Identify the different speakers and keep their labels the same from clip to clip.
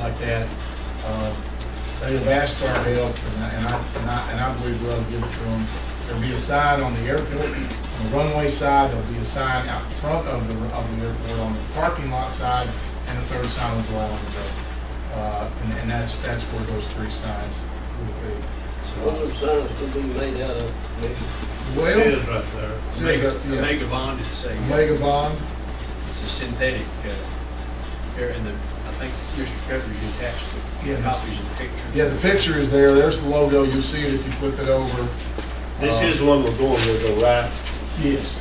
Speaker 1: like that. Uh, They have asked for our help, and I, and I, and I- and I believe we'll give it to them. There'll be a sign on the airport, on the runway side, there'll be a sign out front of the, of the airport on the parking lot side, and the third sign will go out on the road. Uh, And, and that's, that's where those three signs will be.
Speaker 2: Those are signs to be made out of, maybe,
Speaker 3: It
Speaker 1: Well,
Speaker 3: is right there.
Speaker 1: Says
Speaker 4: Mega,
Speaker 1: that, yeah.
Speaker 4: the mega bond is a,
Speaker 1: Mega Bond,
Speaker 4: uh, it's a synthetic, uh, here, and the, I think Mr. Pepper's attached
Speaker 1: Yes.
Speaker 4: to copies of the picture.
Speaker 1: yeah, the picture is there, there's the logo, you'll see it if you flip it over.
Speaker 3: This
Speaker 1: Uh,
Speaker 3: is the one we're going with, though, right?
Speaker 1: Yes,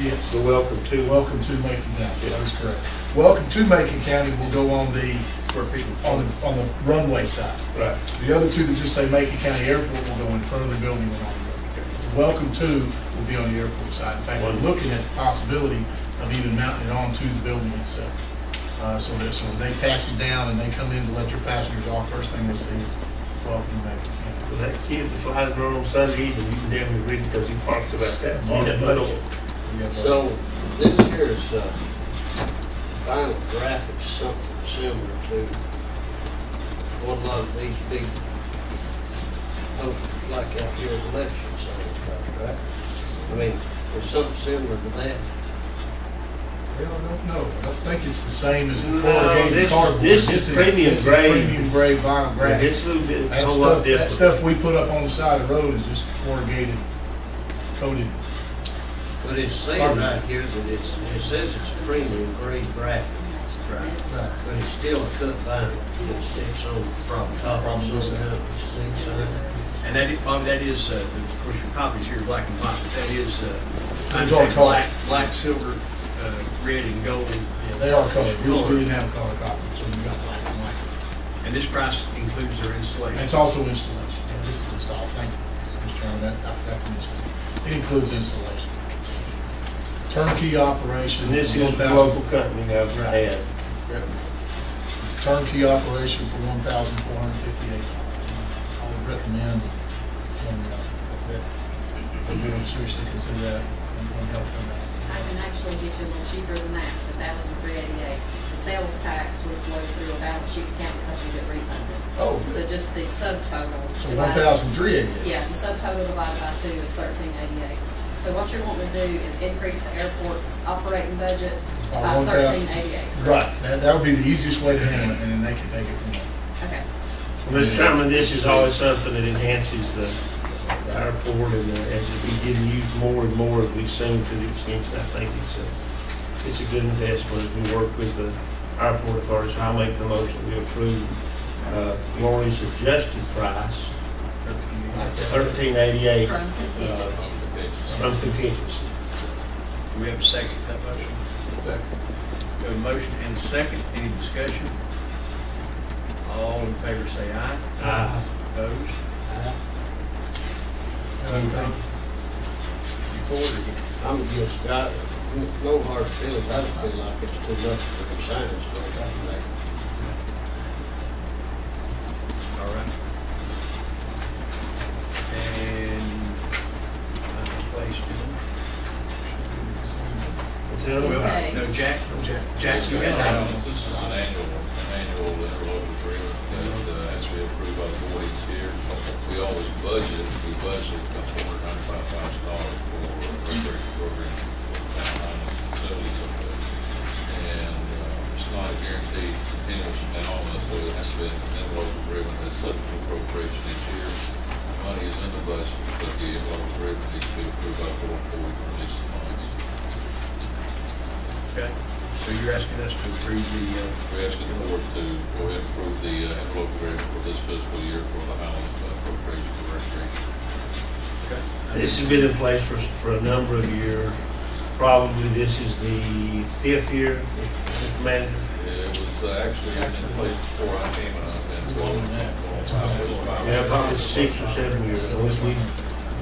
Speaker 1: yes.
Speaker 3: The welcome to.
Speaker 1: Welcome to Macon County, that is correct. Welcome to Macon County will go on the,
Speaker 4: Where people,
Speaker 1: on the, on the runway side.
Speaker 3: Right.
Speaker 1: The other two that just say Macon County Airport will go in front of the building and on the road. The Welcome to will be on the airport side. In fact, we're looking at the possibility of even mounting it onto the building itself. Uh, so that, so when they taxi down and they come in to let your passengers off, first thing they see is welcome to Macon County.
Speaker 3: Well, That kid that flies around on Sunday evening, you can definitely read it because he talks about that.
Speaker 1: Yeah.
Speaker 3: That little-
Speaker 1: We have, uh,
Speaker 2: so this here is, uh, final graphics, something similar to what a lot of these big, posters like out here at election signs, got, right? I mean, it's something similar to that.
Speaker 1: Well, I don't know. I don't think it's the same as the
Speaker 3: No, this
Speaker 1: corrugated
Speaker 3: is-
Speaker 1: cardboard.
Speaker 3: this is premium
Speaker 1: this is
Speaker 3: grade.
Speaker 1: Premium grade vinyl
Speaker 3: Right,
Speaker 1: grade.
Speaker 3: It's a little bit,
Speaker 1: That
Speaker 3: a lot
Speaker 1: stuff, that
Speaker 3: different.
Speaker 1: stuff we put up on the side of the road is just corrugated coated.
Speaker 2: But it's saying right here that it's, it says it's premium grade graphic,
Speaker 1: Right.
Speaker 2: but it's still a cut vinyl. It's, it's on the top, top,
Speaker 1: Probably
Speaker 2: so it's
Speaker 1: so.
Speaker 4: and that, is- Bobby, that is, uh, the- of course, your copies here, are black and white, but that is, uh,
Speaker 1: Those
Speaker 4: I'd
Speaker 1: are
Speaker 4: say
Speaker 1: color.
Speaker 4: black, black, silver, uh, red and gold. and-
Speaker 1: They are colored. We
Speaker 4: Colored.
Speaker 1: we didn't have color copy, so we got black and white.
Speaker 4: And this price includes their
Speaker 1: And
Speaker 4: installation.
Speaker 1: it's also installation. Yeah, This is installed. Thank you, Mr. Chairman. That, I forgot to mention. It includes installation. Turnkey operation.
Speaker 3: And this is the
Speaker 1: 1,000
Speaker 3: local company I've
Speaker 1: Right.
Speaker 3: had.
Speaker 1: Yep. It's turnkey operation for one thousand four hundred fifty-eight dollars. I would recommend, um, that, that we would seriously consider that and and help them out.
Speaker 5: I can actually get you a little cheaper than that, it's a thousand three eighty-eight. The sales tax would flow through a balance sheet account because you get refunded.
Speaker 1: Oh,
Speaker 5: So just the subtotal.
Speaker 1: So
Speaker 5: divided-
Speaker 1: one thousand three eighty?
Speaker 5: Yeah, the subtotal divided by two is thirteen eighty-eight. So what you're wanting to do is increase the airport's operating budget
Speaker 1: By
Speaker 5: by
Speaker 1: 1,000.
Speaker 5: thirteen eighty-eight.
Speaker 1: Right, that, that would be the easiest way to handle it, and then they can take it from there.
Speaker 5: Okay.
Speaker 3: Well, Mr. Chairman, this is always something that enhances the the airport and uh, as we get used more and more as we soon to the extension, I think it's a, it's a good investment as we work with the airport authorities. So I make the motion we approve uh, Lori's adjusted price, thirteen eighty-eight
Speaker 5: From contingency.
Speaker 3: from contingency.
Speaker 4: Do we have a second to that motion? We have a motion and a second, any discussion? All in favor say aye.
Speaker 3: Aye.
Speaker 4: Opposed?
Speaker 1: uh,
Speaker 4: You for it or against?
Speaker 2: I'm just, I, no hard feelings, I feel like it's too much for the signs, but I think.
Speaker 4: All right. And, uh, place it.
Speaker 3: Tell them.
Speaker 5: Okay.
Speaker 4: No, Jack, Jack, you
Speaker 6: Um, This
Speaker 4: had that.
Speaker 6: is an annual, an annual interlocal agreement that uh, has to be approved by the board each year. We always budget, we budget about four hundred ninety-five thousand dollars for recreation program, for town facilities up there. And uh, it's not a guaranteed continuous amount, so it has to be an interlocal agreement that's subject to appropriation each year. Money is in the budget, but the interlocal agreement needs to be approved by the board before we can release the funds.
Speaker 4: Okay. So you're asking us to approve the, uh,
Speaker 6: We're asking the board to go ahead and approve the uh, envelope agreement for this fiscal year for the Highland appropriation for recreation.
Speaker 3: This has been in place for, for a number of years. Probably this is the fifth year, Mr. Manager.
Speaker 6: It was uh, actually in place before I came on.
Speaker 3: Yeah, probably six or seven years, unless we,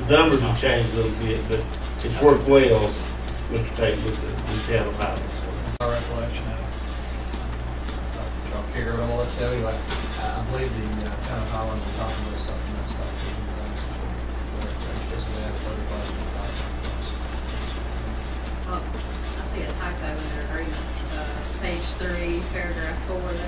Speaker 3: the numbers have changed a little bit, but it's worked well, Mr. Tate, with the, with the town of Highland. so.
Speaker 7: our recollection of. it. Y'all care about all that stuff anyway. I I believe the uh, town of Holland was talking about something that's not taking the plans. Just that, but it wasn't about
Speaker 5: Oh, Well, I see a typo in their agreement, uh, page three, paragraph four,